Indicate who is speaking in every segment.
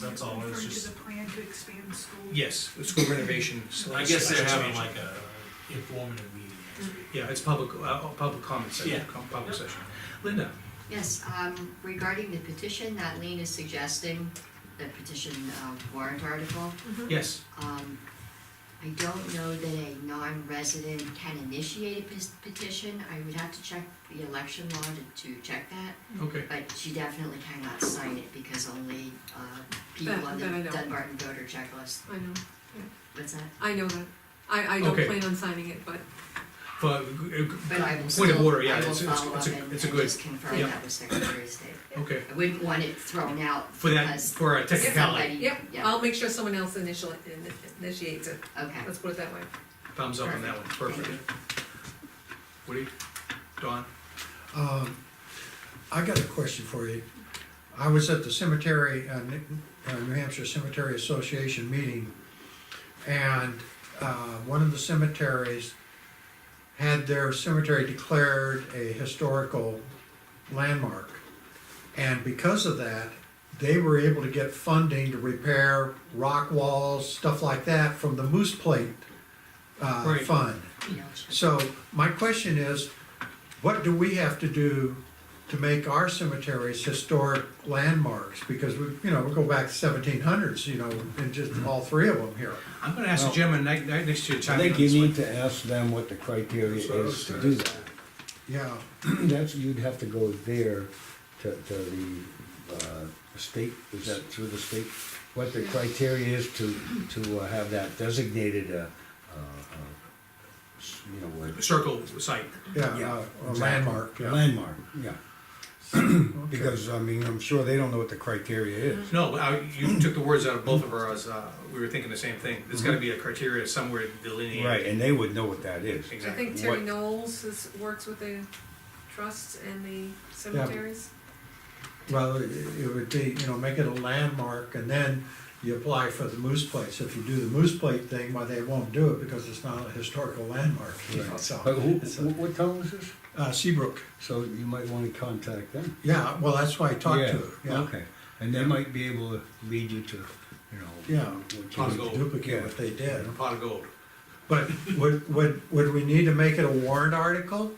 Speaker 1: that's all, it's
Speaker 2: Referring to
Speaker 1: just,
Speaker 2: the plan to expand school.
Speaker 1: yes, the school renovation.
Speaker 3: I
Speaker 1: slash-
Speaker 3: guess they're
Speaker 1: slash
Speaker 3: having
Speaker 1: expansion.
Speaker 3: like a informative meeting next week.
Speaker 1: Yeah, it's public, uh, public comment session,
Speaker 3: Yeah.
Speaker 1: com- public
Speaker 3: Yep.
Speaker 1: session. Linda,
Speaker 4: Yes, um, regarding the petition that Lean is suggesting, the petition uh, warrant article,
Speaker 2: Mm-hmm.
Speaker 1: yes,
Speaker 4: um, I don't know that a non-resident can initiate a pet- petition. I would have to check the election law to, to check that.
Speaker 1: okay,
Speaker 4: But she definitely cannot sign it because only, uh,
Speaker 5: That-
Speaker 4: people on the
Speaker 5: that I know.
Speaker 4: Dunbarton voter checklist,
Speaker 5: I know,
Speaker 4: what's that?
Speaker 5: I know that. I, I don't
Speaker 1: Okay.
Speaker 5: plan on signing it, but
Speaker 1: but, uh,
Speaker 4: But I will
Speaker 1: point of
Speaker 4: still,
Speaker 1: order, yeah,
Speaker 4: I will
Speaker 1: it's, it's,
Speaker 4: follow
Speaker 1: it's
Speaker 4: up
Speaker 1: a,
Speaker 4: and and
Speaker 1: it's a good,
Speaker 4: just confirm
Speaker 1: Yeah.
Speaker 4: that with Secretary of State.
Speaker 1: okay.
Speaker 4: I wouldn't want it thrown out
Speaker 1: For that,
Speaker 4: because
Speaker 1: for a technicality,
Speaker 4: somebody, yeah,
Speaker 5: yeah, I'll make sure someone else initial, initiates it.
Speaker 4: okay.
Speaker 5: Let's put it that way.
Speaker 1: thumbs up on that one, perfect. Woody, Don,
Speaker 6: Um, I got a question for you. I was at the cemetery, uh, Ni- uh, New Hampshire Cemetery Association meeting, and, uh, one of the cemeteries had their cemetery declared a historical landmark. And because of that, they were able to get funding to repair rock walls, stuff like that, from the Moose Plate, uh,
Speaker 1: Right.
Speaker 6: fund.
Speaker 4: Yeah, I'll check.
Speaker 6: So my question is, what do we have to do to make our cemeteries historic landmarks? Because we, you know, we go back seventeen hundreds, you know, and just
Speaker 7: Mm-hmm.
Speaker 6: all three of them here.
Speaker 1: I'm gonna ask the
Speaker 7: Well,
Speaker 1: gentleman ni- ni- next to you, to
Speaker 7: I
Speaker 1: chime in
Speaker 7: think
Speaker 1: on
Speaker 7: you
Speaker 1: this
Speaker 7: need
Speaker 1: one.
Speaker 7: to ask them what the criteria
Speaker 1: That's what I was
Speaker 7: is to
Speaker 1: gonna
Speaker 7: do that.
Speaker 6: Yeah,
Speaker 7: That's, you'd have to go there to, to the, uh, state, is that through the state? What the criteria is to, to uh, have that designated, uh, uh, uh, s- you know, what?
Speaker 1: Circle site,
Speaker 7: Yeah,
Speaker 6: yeah, uh, a- a
Speaker 7: exactly.
Speaker 6: landmark, yeah.
Speaker 7: Landmark, yeah. Because, I mean, I'm sure they don't know what the criteria is.
Speaker 1: no, I- you took the words out of both of ours, uh, we were thinking the same thing, there's gotta be a criteria somewhere delineated.
Speaker 7: Right, and they would know what that is.
Speaker 5: I
Speaker 1: Exactly.
Speaker 5: think Terry
Speaker 7: What-
Speaker 5: Knowles is, works with the trusts and the cemeteries.
Speaker 6: Well, it it would be, you know, make it a landmark and then you apply for the moose place. If you do the moose plate thing, why they won't do it because it's not a historical landmark, you know,
Speaker 7: Right. But
Speaker 6: so.
Speaker 7: who,
Speaker 6: It's
Speaker 7: wh- what town is this?
Speaker 6: Uh, Seabrook,
Speaker 7: So you might wanna contact them.
Speaker 6: yeah, well, that's why I talked to her,
Speaker 7: Yeah,
Speaker 6: yeah.
Speaker 7: Okay, and they might be able to lead you to, you know.
Speaker 6: Yeah.
Speaker 7: what you
Speaker 1: How's it
Speaker 7: need
Speaker 1: go?
Speaker 7: to
Speaker 6: Duplicate what they did.
Speaker 1: A pot of gold.
Speaker 6: But would, would, would we need to make it a warrant article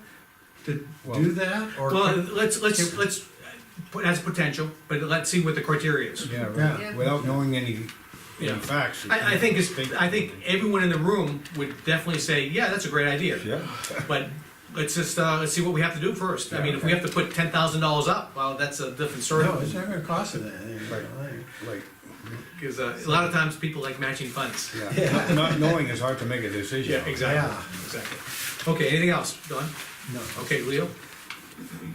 Speaker 6: to
Speaker 7: Well-
Speaker 6: do that, or?
Speaker 1: Well, let's, let's, let's, uh, that's potential, but let's see what the criteria is.
Speaker 7: do. Yeah,
Speaker 6: Yeah.
Speaker 7: right, without knowing any,
Speaker 1: Yeah.
Speaker 7: any facts. you
Speaker 1: I, I
Speaker 7: can't
Speaker 1: think it's, I think
Speaker 7: of
Speaker 1: everyone in the room would definitely say, yeah, that's a great idea.
Speaker 7: it. Yeah,
Speaker 1: But let's just, uh, let's see what we have to do first. I mean, if we have to put ten thousand dollars up, well, that's a different story.
Speaker 6: No, it's not gonna cost them anything, you know, they-
Speaker 7: like,
Speaker 1: Because uh, a lot of times people like matching funds.
Speaker 7: yeah, not- not knowing is hard to make a decision. on.
Speaker 6: Yeah.
Speaker 1: Exactly. Okay, anything else, Don?
Speaker 6: no.
Speaker 1: Okay, Leo?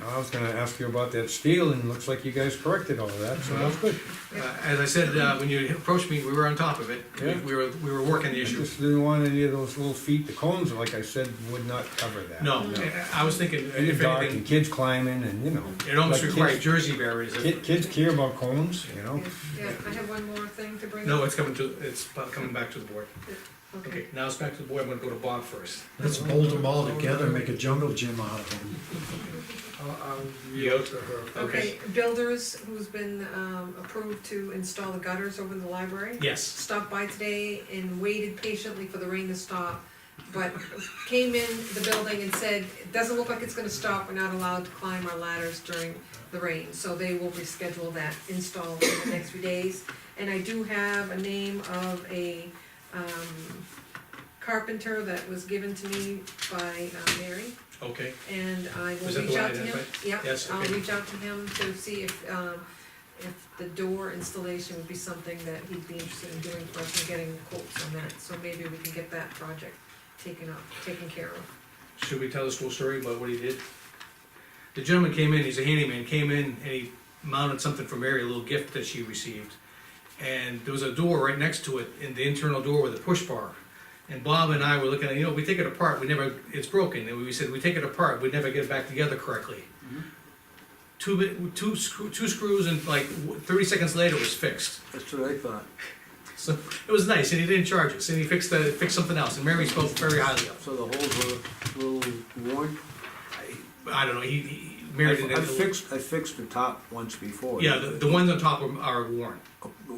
Speaker 7: I was gonna ask you about that steel, and looks like you guys corrected all of that, so that's good.
Speaker 1: Uh, as I said, uh, when you approached me, we were on top of it. We-
Speaker 7: Yeah.
Speaker 1: We were, we were working the
Speaker 7: I
Speaker 1: issue.
Speaker 7: just didn't want any of those little feet, the cones, like I said, would not cover that.
Speaker 1: No, I I was thinking,
Speaker 7: And it's
Speaker 1: if
Speaker 7: dark and
Speaker 1: anything,
Speaker 7: kids climbing and, you know.
Speaker 1: it almost
Speaker 7: like
Speaker 1: required
Speaker 7: kids-
Speaker 1: Jersey barriers.
Speaker 7: Kid, kids care about cones, you know?
Speaker 5: Yeah, yeah, I have one more thing to bring up.
Speaker 1: No, it's coming to, it's coming back to the board. Okay, now it's back to the board, I'm gonna go to Bob first.
Speaker 6: Let's bolt them all together and make a jungle gym out of them.
Speaker 1: You out?
Speaker 5: Uh-huh. Okay, builders who's been, um, approved to install the gutters over the library.
Speaker 1: Yes,
Speaker 5: stopped by today and waited patiently for the rain to stop, but came in the building and said, it doesn't look like it's gonna stop, we're not allowed to climb our ladders during the rain, so they will reschedule that install in the next few days. And I do have a name of a, um, carpenter that was given to me by uh, Mary,
Speaker 1: okay,
Speaker 5: and I will
Speaker 1: Was that the
Speaker 5: reach
Speaker 1: one I
Speaker 5: out to him.
Speaker 1: identified?
Speaker 5: Yeah,
Speaker 1: Yes,
Speaker 5: I'll
Speaker 1: okay.
Speaker 5: reach out to him to see if, um, if the door installation would be something that he'd be interested in doing for us and getting quotes on that. So maybe we can get that project taken up, taken care of.
Speaker 1: should we tell the school story about what he did? The gentleman came in, he's a handyman, came in and he mounted something for Mary, a little gift that she received. And there was a door right next to it, in the internal door with a push bar. And Bob and I were looking at, you know, we take it apart, we never, it's broken, and we said, we take it apart, we never get it back together correctly.
Speaker 8: Mm-hmm.
Speaker 1: Two, bit- two screw, two screws and like thirty seconds later it was fixed.
Speaker 8: That's what I thought.
Speaker 1: So it was nice, and he didn't charge us, and he fixed the, fixed something else, and Mary spoke very highly of. it.
Speaker 8: So the holes were a little worn.
Speaker 1: I don't know, he, he Mary
Speaker 8: I
Speaker 1: didn't.
Speaker 8: fixed, I fixed the top once before.
Speaker 1: Yeah, the, the ones on top are, are worn.